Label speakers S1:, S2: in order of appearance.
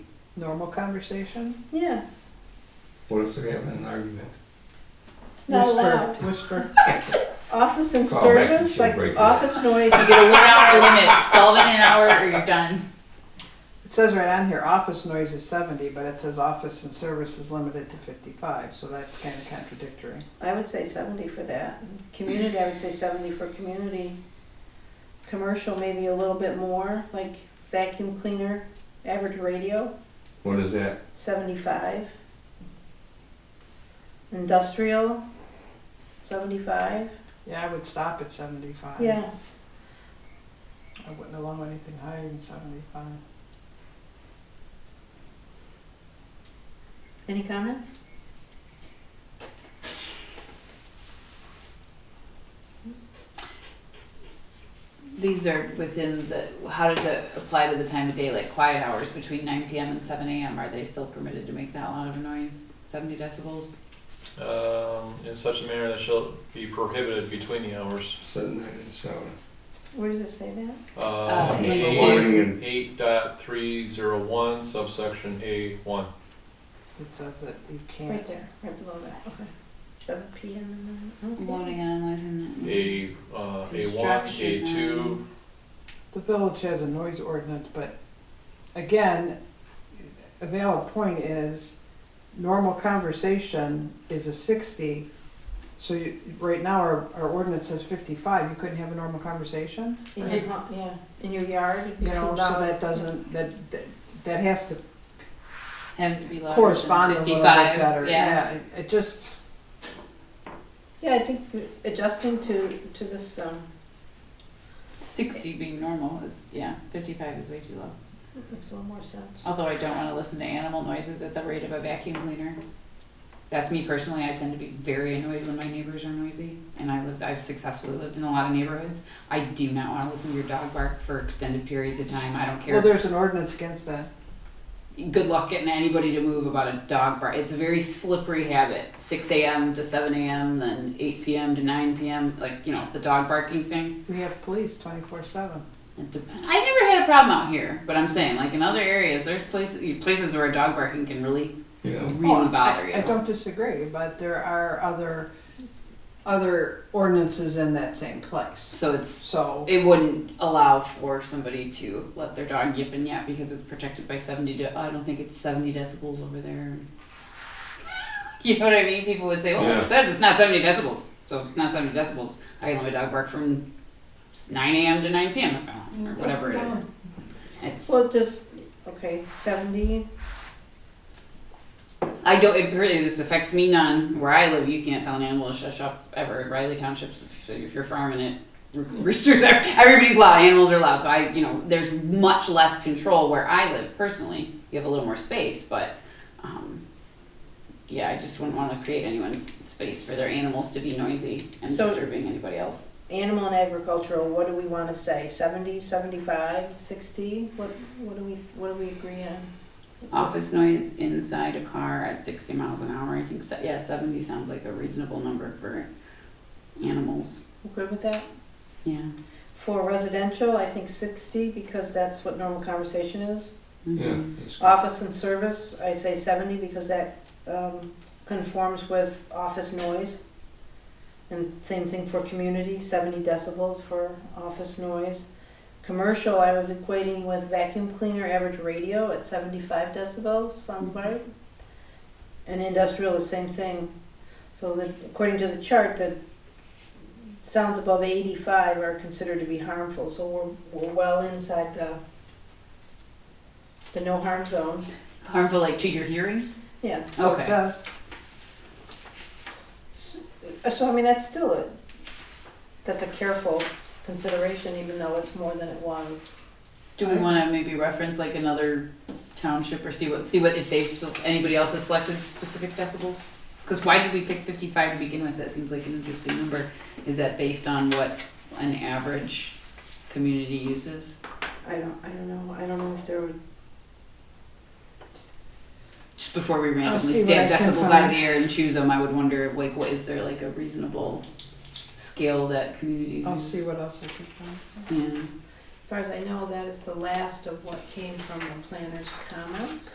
S1: normal conversation?
S2: Yeah,
S3: What if they're having an argument?
S2: it's not
S1: Whisper-
S2: allowed.
S1: Whisper.
S2: Office and
S3: Call back and
S2: service,
S3: she'll
S2: like
S3: break it.
S2: office noise,
S4: You get a one hour limit. Solve it in an hour or you're done.
S1: It says right on here, office noise is seventy, but it says office and service is limited to fifty-five, so that's kind of contradictory.
S2: I would say seventy for that. Community, I would say seventy for community. Commercial, maybe a little bit more, like vacuum cleaner, average radio,
S3: What is that?
S2: seventy-five. Industrial, seventy-five,
S1: Yeah, I would stop at seventy-five.
S2: yeah.
S1: I wouldn't allow anything higher than seventy-five.
S2: Any comments?
S4: These are within the, how does it apply to the time of day, like quiet hours between 9 p.m. and 7 a.m.? Are they still permitted to make that loud of a noise? 70 decibels?
S5: um, in such a manner that shall be prohibited between the hours.
S3: Seven, nine, and seven.
S2: Where does it say that?
S5: Uh,
S4: Uh,
S3: In
S4: eight.
S3: the morning and
S5: Eight dot three zero one subsection A one.
S1: It says that you
S2: Right
S1: can't.
S2: there, right below that, okay. Seven P M and then, okay.
S4: Loading and analyzing that.
S5: A, uh, A one, A
S4: Construction
S5: two.
S4: noise.
S1: The village has a noise ordinance, but again, a valid point is normal conversation is a sixty. So you, right now, our, our ordinance says fifty-five, you couldn't have a normal conversation,
S2: In your, hu- yeah, in your yard, it'd be
S1: you know,
S2: too
S1: so
S2: loud.
S1: that doesn't, that, that- that has to
S4: Has to be louder
S1: correspond a
S4: than
S1: little bit
S4: 55.
S1: better,
S4: yeah.
S1: yeah, it, it just,
S2: Yeah, I think adjusting to, to this, um,
S4: 60 being normal is, yeah, 55 is way too low.
S2: makes a little more sense.
S4: Although I don't want to listen to animal noises at the rate of a vacuum cleaner. That's me personally. I tend to be very annoyed when my neighbors are noisy, and I lived. I've successfully lived in a lot of neighborhoods. I do not want to listen to your dog bark for extended periods of time. I don't care.
S1: well, there's an ordinance against that.
S4: Good luck getting anybody to move about a dog bark. It's a very slippery habit. Six a.m. to seven a.m., then eight p.m. to nine p.m. Like you know the dog barking thing.
S1: We have police twenty-four seven.
S4: It dep- I never had a problem out here, but I'm saying like in other areas, there's places places where dog barking can really
S3: yeah,
S4: really
S1: Oh,
S4: bother
S1: I-
S4: you.
S1: I don't disagree, but there are other, other ordinances in that same place,
S4: So it's
S1: so.
S4: it wouldn't allow for somebody to let their dog yip and yap because it's protected by 70 de- i don't think it's 70 decibels over there you know what i mean people would say well
S3: Yeah.
S4: it says it's not 70 decibels so if it's not 70 decibels i can let my dog bark from 9 a.m to 9 p.m if i want or whatever it is it's,
S2: Well, just, okay, seventy,
S4: i don't it really this affects me none where i live you can't tell an animal to shush up ever riley townships if, if you're farming it roosters are everybody's loud animals are loud so i you know there's much less control where i live personally you have a little more space but um, yeah i just wouldn't want to create anyone's space for their animals to be noisy and
S2: So-
S4: disturbing anybody else
S2: animal and agricultural, what do we wanna say, seventy, seventy-five, sixty? What, what do we, what do we agree on?
S4: office noise inside a car at 60 miles an hour i think se- yeah 70 sounds like a reasonable number for animals
S2: Good with that?
S4: yeah
S2: For residential, I think sixty, because that's what normal conversation is.
S3: yeah.
S4: Mhm.
S3: that's good.
S2: Office and service, I say seventy, because that, um, conforms with office noise. And same thing for community, seventy decibels for office noise. Commercial, I was equating with vacuum cleaner average radio at seventy-five decibels, sound
S4: Mhm.
S2: right? And industrial, the same thing. So that, according to the chart, the sounds above eighty-five are considered to be harmful, so we're, we're well inside the, the no harm zone.
S4: harmful like to your hearing
S2: Yeah,
S1: It
S4: okay
S1: does.
S2: Uh, so I mean, that's still a, that's a careful consideration, even though it's more than it was.
S4: Do we want to maybe reference like another township or see what, see what, if they've, spe- anybody else has selected specific decibels? Because why did we pick fifty-five to begin with? That seems like an interesting number. Is that based on what an average community uses?
S2: I don't, I don't know, I don't know if there were,
S4: Just before we
S1: see
S4: randomly
S1: what
S4: stamp
S1: I can
S4: decibels out of the air and choose them, I would wonder like, what, is there like a reasonable scale that communities
S1: I'll see
S4: use?
S1: what else I can find.
S4: Yeah.
S2: as far as I know, that is the last of what came from the planner's comments.